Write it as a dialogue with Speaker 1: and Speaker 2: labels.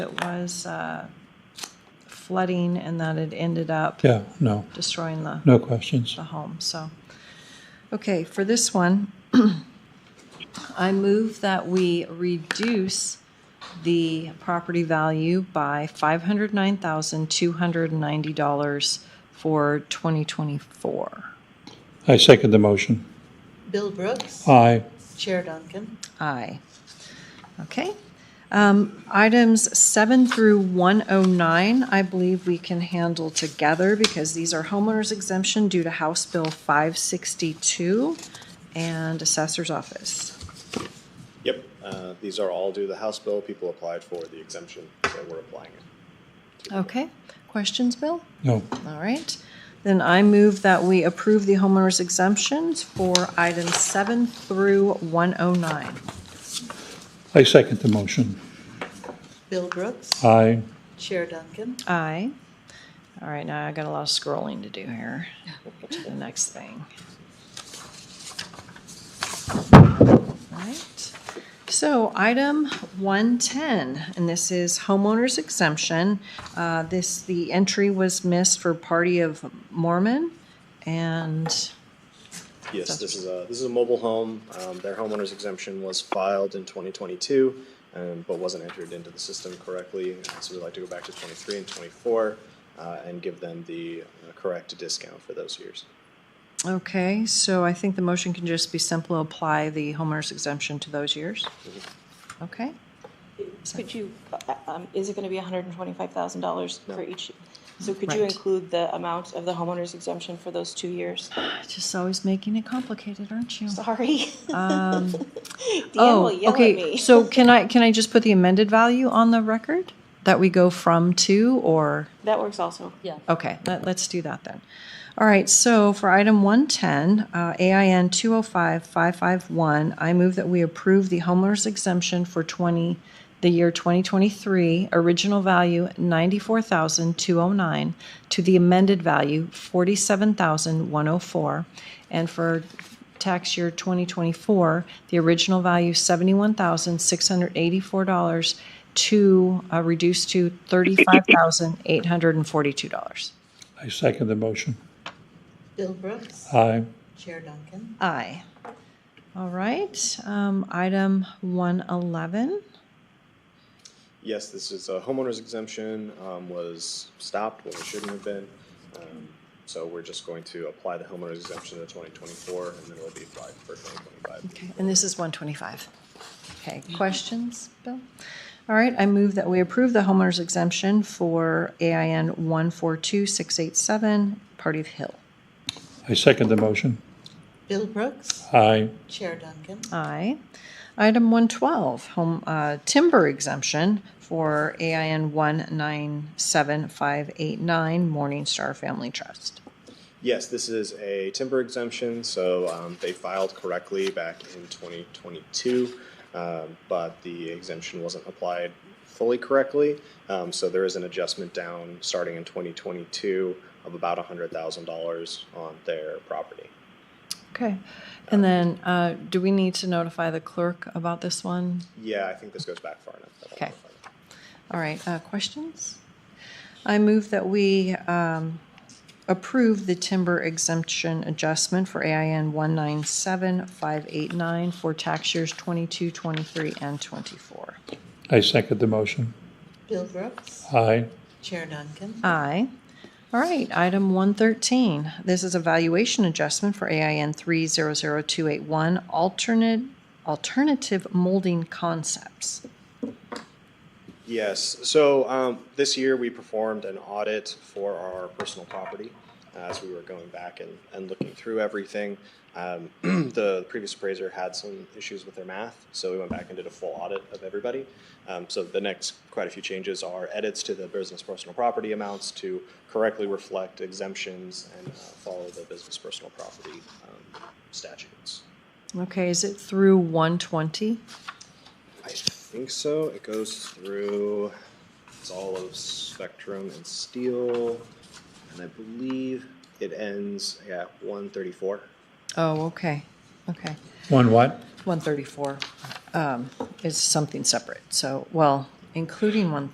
Speaker 1: It was uh, flooding and that it ended up
Speaker 2: Yeah, no,
Speaker 1: destroying the,
Speaker 2: no questions.
Speaker 1: the home, so. Okay, for this one, I move that we reduce the property value by $509,290 for 2024.
Speaker 2: I second the motion.
Speaker 3: Bill Brooks.
Speaker 2: Aye,
Speaker 3: Chair Duncan.
Speaker 1: Aye. Okay. Um, Items seven through 109, I believe we can handle together because these are homeowners exemption due to House Bill 562 and Assessor's Office.
Speaker 4: Yep, uh, these are all due to the House bill. People applied for the exemption, so we're applying it.
Speaker 1: Okay. Questions, Bill?
Speaker 2: no,
Speaker 1: All right. Then I move that we approve the homeowners exemptions for items seven through 109.
Speaker 2: I second the motion.
Speaker 3: Bill Brooks.
Speaker 2: Aye,
Speaker 3: Chair Duncan.
Speaker 1: Aye. All right, now I got a lot of scrolling to do here to the next thing. All right. So item 110, and this is homeowner's exemption. Uh, This, the entry was missed for Party of Mormon, and,
Speaker 4: Yes,
Speaker 1: Sounds
Speaker 4: this is a, this is a mobile home. Um, Their homeowner's exemption was filed in 2022, um, but wasn't entered into the system correctly. So we'd like to go back to 23 and 24 uh, and give them the uh, correct discount for those years.
Speaker 1: okay, so I think the motion can just be simple, apply the homeowner's exemption to those years. Okay?
Speaker 5: Could you, uh, um, is it gonna be hundred and twenty-five thousand dollars for each? So could you
Speaker 1: Right.
Speaker 5: include the amount of the homeowner's exemption for those two years?
Speaker 1: Just always making it complicated, aren't you?
Speaker 5: Sorry. Deanne
Speaker 1: Oh,
Speaker 5: will yell
Speaker 1: Um,
Speaker 5: at
Speaker 1: okay.
Speaker 5: me.
Speaker 1: So can I, can I just put the amended value on the record? That we go from to or,
Speaker 5: That works also.
Speaker 6: Yeah.
Speaker 1: okay, let, let's do that then. All right, so for item 110, uh, AIN 205-551, I move that we approve the homeowner's exemption for 20, the year 2023, original value 94,209 to the amended value 47,104. And for tax year 2024, the original value $71,684 to, uh, reduced to $35,842.
Speaker 2: I second the motion.
Speaker 3: Bill Brooks.
Speaker 2: Aye,
Speaker 3: Chair Duncan.
Speaker 1: Aye. All right, um, item 111.
Speaker 4: Yes, this is a homeowner's exemption, um, was stopped when it shouldn't have been. Um, So we're just going to apply the homeowner's exemption to 2024 and then it'll be applied for 2025.
Speaker 1: And this is 125. Okay, questions, Bill? All right, I move that we approve the homeowner's exemption for AIN 142687, Party of Hill.
Speaker 2: I second the motion.
Speaker 3: Bill Brooks.
Speaker 2: Aye,
Speaker 3: Chair Duncan.
Speaker 1: Aye. Item 112, home, uh, timber exemption for AIN 197589, Morning Star Family Trust.
Speaker 4: Yes, this is a timber exemption, so um, they filed correctly back in 2022, um, but the exemption wasn't applied fully correctly. Um, so there is an adjustment down starting in 2022 of about $100,000 on their property.
Speaker 1: Okay, and then, uh, do we need to notify the clerk about this one?
Speaker 4: Yeah, I think this goes back far enough. I don't know
Speaker 1: Okay.
Speaker 4: if I-
Speaker 1: All right, uh, questions? I move that we um, approve the timber exemption adjustment for AIN 197589 for tax years 22, 23, and 24.
Speaker 2: I second the motion.
Speaker 3: Bill Brooks.
Speaker 2: Aye,
Speaker 3: Chair Duncan.
Speaker 1: Aye. All right, item 113. This is a valuation adjustment for AIN 300281, alternate, alternative molding concepts.
Speaker 4: Yes, so um, this year we performed an audit for our personal property uh, as we were going back and, and looking through everything. Um, the previous appraiser had some issues with their math, so we went back and did a full audit of everybody. Um, so the next quite a few changes are edits to the business personal property amounts to correctly reflect exemptions and uh, follow the business personal property um, statutes.
Speaker 1: Okay, is it through 120?
Speaker 4: I think so. It goes through, it's all of Spectrum and Steel, and I believe it ends at 134.
Speaker 1: Oh, okay, okay.
Speaker 2: one what?
Speaker 1: 134 um, is something separate, so, well, including one.